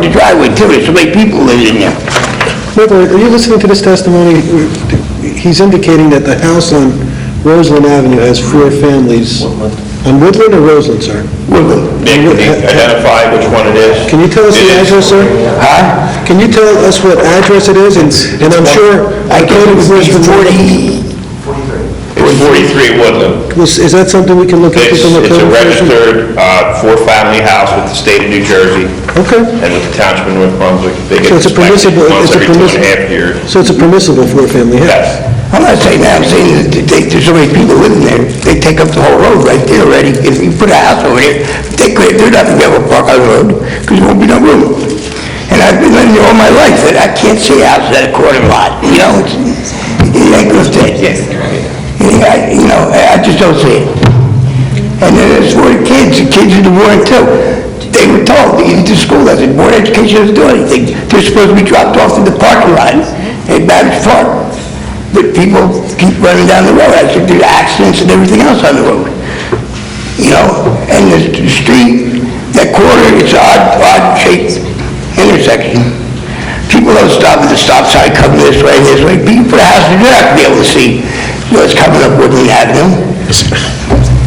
The driveway too, there's so many people living in there. Michael, are you listening to this testimony? He's indicating that the house on Roseland Avenue has four families. On Woodland or Roseland, sir? Nick, can you identify which one it is? Can you tell us the It is- address, sir? Huh? Can you tell us what address it is? And and I'm sure... I guess it was forty. It's 43 Woodland. Was- Is that something we can look at? It's from the it's code a enforcement? registered uh, four-family house with the state of New Jersey Okay. and with the township of North Brunswick. They get So it's a inspected permissible, it's once a every two and a half permissible... years. So it's a permissible four-family house? Yes. I'm not saying that, I'm saying that they take, there's so many people living there, they take up the whole road right there already. If you put a house over there, they could, they're not gonna be able to park on the road, because there won't be no room. And I've been living here all my life, and I can't see a house at a quarter lot, you know, it's, it ain't gonna stay. Yeah, I- you know, I I just don't see it. And then there's for the kids, the kids in the war too. They were told, even to school, that the board of education doesn't do anything. They're supposed to be dropped off in the parking lot at Babbitt Park. But people keep running down the road, I think there's accidents and everything else on the road. You know, and the the street, that corner, it's an odd, odd shaped intersection. People don't stop at the stop sign, come this way, this way. People put a house, you're not gonna be able to see what's coming up Woodland Avenue.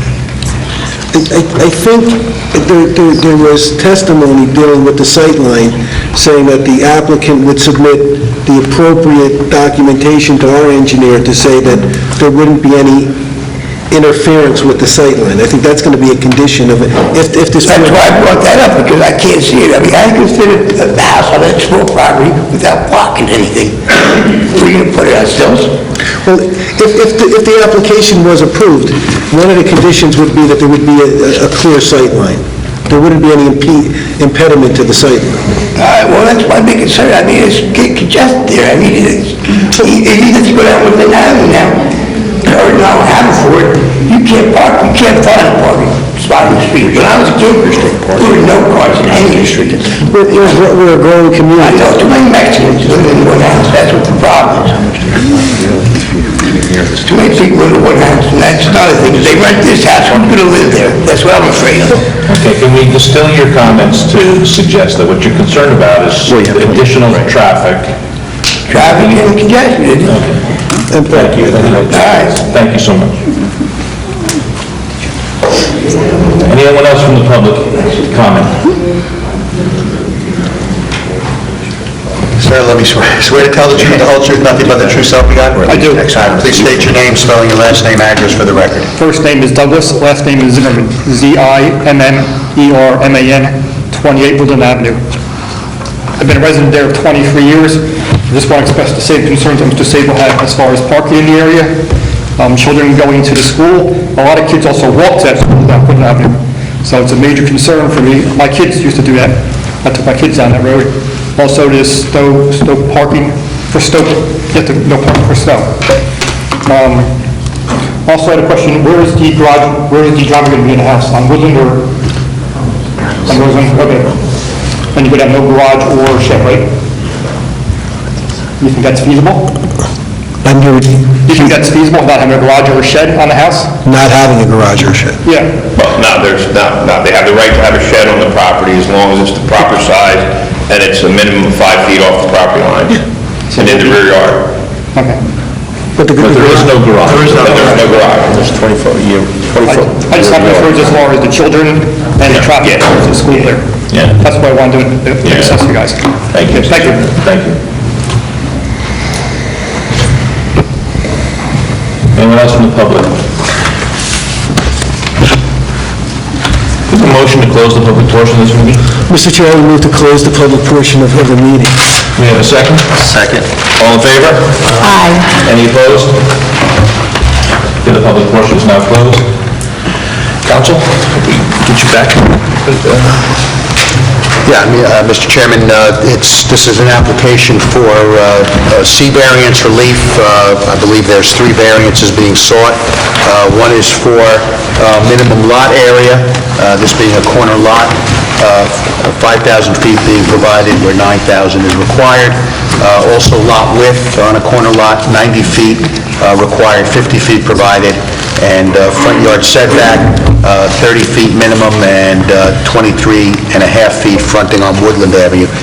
I I think there- there there was testimony dealing with the sightline, saying that the applicant would submit the appropriate documentation to our engineer to say that there wouldn't be any interference with the sightline. I think that's going to be a condition of, it. if if this... That's why I brought that up, because I can't see it. I mean, I consider the house on that small property without blocking anything. We're gonna put it ourselves. Well, if if the if the application was approved, one of the conditions would be that there would be a a clear sightline. There wouldn't be any impe- impediment to the sightline. All right, well, that's my big concern. I mean, it's getting congested there. I mean, it's, you you need to go down Woodland Avenue now, or now Haverford, you can't park, you can't find a parking spot in the street. When I was a kid, there were no cars in any street. We're we're- we're a growing I community. know too many Mexicans live in one house, that's what the problem is. Too many people live in one house, and that's another thing, if they rent this house, I'm gonna live there, that's what I'm afraid of. Okay, can we distill your comments to suggest that what you're concerned about is additional traffic? Traffic and congestion, it is. Thank you. right. Thank you so much. Anyone else from the public comment? Sir, let me swear, swear to tell the truth, the whole truth, nothing but the true self you got? I do. Excellent. Please state your name, spelling your last name, address for the record. First name is Douglas, last name is Zimmerman, E Z-I-M-M-E-R-M-A-N, 28 Woodland Avenue. I've been a resident there 23 years. Just want to express the same concerns that Mr. Sable had as far as parking in the area, um, children going to the school. A lot of kids also walk to that school down Woodland Avenue, so it's a major concern for me. My kids used to do that. I took my kids down that road. Also, there's Stowe, Stowe parking for Stowe, you have to, no parking for Stowe. Um, Also, I had a question, where is the garage, where is the driveway going to be in the house? On Woodland or on Roseland, okay. And you could have no garage or shed, right? You think that's feasible? I'm here You think that's feasible about having a garage or a shed on the house? not having a garage or shed. Yeah. Well, no, there's, no, no, they have the right to have a shed on the property as long as it's the proper size and it's a minimum of five feet off the property line and in the rear yard. Okay. But the But there is no garage. There is But there's no garage. There's 24, you, I I just have concerns as far as the children and the traffic Yeah. to the school there. Yeah. That's why I wanted to uh, Yeah. assess you guys. Thank you. Thank you. Thank you. Anyone else from the public? Is there a motion to close the public portion of this meeting? Mr. Chair, I would move to close the public portion of of the meeting. We have a second? Second. All in favor? Aye. Any opposed? Okay, the public portion is now closed. Counsel, get you back. Yeah, I mean, uh, Mr. Chairman, uh, it's, this is an application for uh, uh, C variance relief. Uh, I believe there's three variances being sought. Uh, One is for uh, minimum lot area, uh, this being a corner lot, uh, 5,000 feet being provided where 9,000 is required. Uh, Also lot width on a corner lot, 90 feet uh, required, 50 feet provided, and uh, front yard setback, uh, 30 feet minimum and uh, 23 and a half feet fronting on Woodland Avenue.